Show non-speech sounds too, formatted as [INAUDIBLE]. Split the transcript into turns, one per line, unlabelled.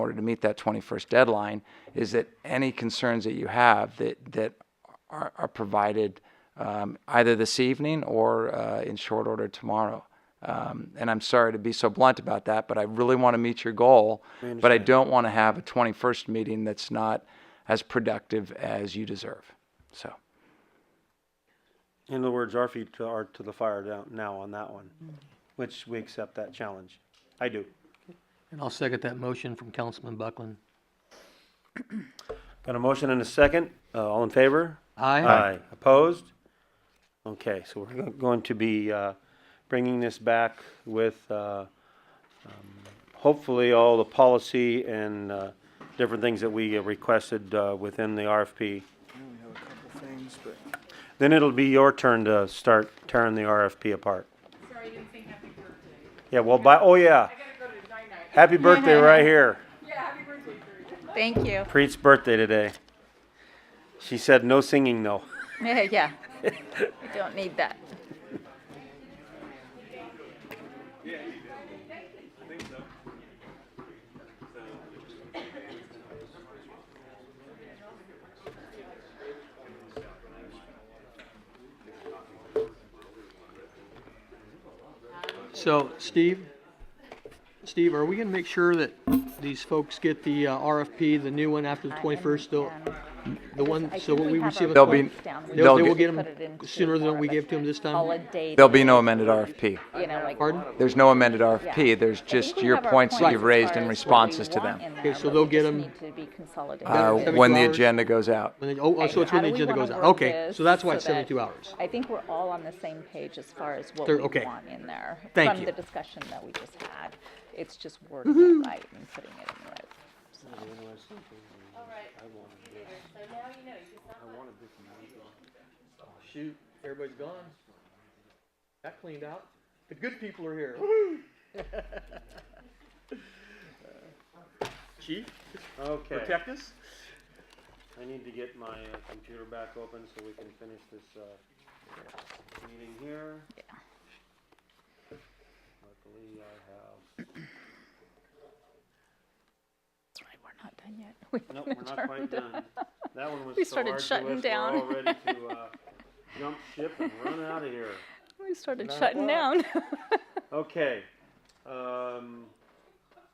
order to meet that 21st deadline is that any concerns that you have that, that are, are provided um, either this evening or uh, in short order tomorrow. Um, and I'm sorry to be so blunt about that, but I really want to meet your goal. but I don't want to have a 21st meeting that's not as productive as you deserve. So,
In other words, our feet are to the fire down- now on that one, which we accept that challenge. I do.
And I'll second that motion from Councilman Buckland.
Got a motion and a second. Uh, all in favor?
Aye.
Opposed? Okay, so we're go- going to be, uh, bringing this back with, uh, um, hopefully all the policy and, uh, different things that we requested, uh, within the RFP.
We have a couple things, but
Then it'll be your turn to start tearing the RFP apart.
Sorry, you didn't say happy birthday.
Yeah, well, by, oh yeah,
I gotta go to night night. [LAUGHS]
happy birthday right here.
Yeah, happy birthday, Drew.
Thank you. [LAUGHS]
Preet's birthday today. She said no singing though.
Yeah, yeah. We don't need that.
So, Steve, Steve, are we gonna make sure that these folks get the uh, RFP, the new one after the twenty-first, the, the one, so what we receive? on
They'll
be-
20
They'll-
They'll, they will
get-
get them sooner than we gave to them this time?
Holiday,
there'll be no amended RFP.
you know, like.
Pardon?
There's no amended RFP. There's just your points that you've raised in responses to them
Okay,
so they'll get 'em-
to be consolidated.
uh,
Seventy-two
when the
hours.
agenda goes out.
When they, oh, oh, so it's when
How
the
do we
agenda
wanna
goes out.
word
Okay,
this
so that's why it's
so that-
seventy-two hours.
I think we're all on the same page as far as what
There-
we
okay.
want in there.
Thank you. Mm-hmm.
From the discussion that we just had. It's just wording it right and putting it in the right.
Shoot, everybody's gone. Got cleaned out. The good people are [LAUGHS] here. Chief,
Okay,
us? [LAUGHS]
I need to get my uh, computer back open so we can finish this, uh, meeting here.
Yeah.
Luckily, I
That's right, we're not done yet. [LAUGHS] We
have, nope,
haven't
we're not
adjourned. [LAUGHS]
quite done. That one was
We
so
started
arduous,
shutting
we're
down.
all ready
[LAUGHS]
to, uh, jump ship and run out of here.
We started
Nine
shutting down.
Okay, um,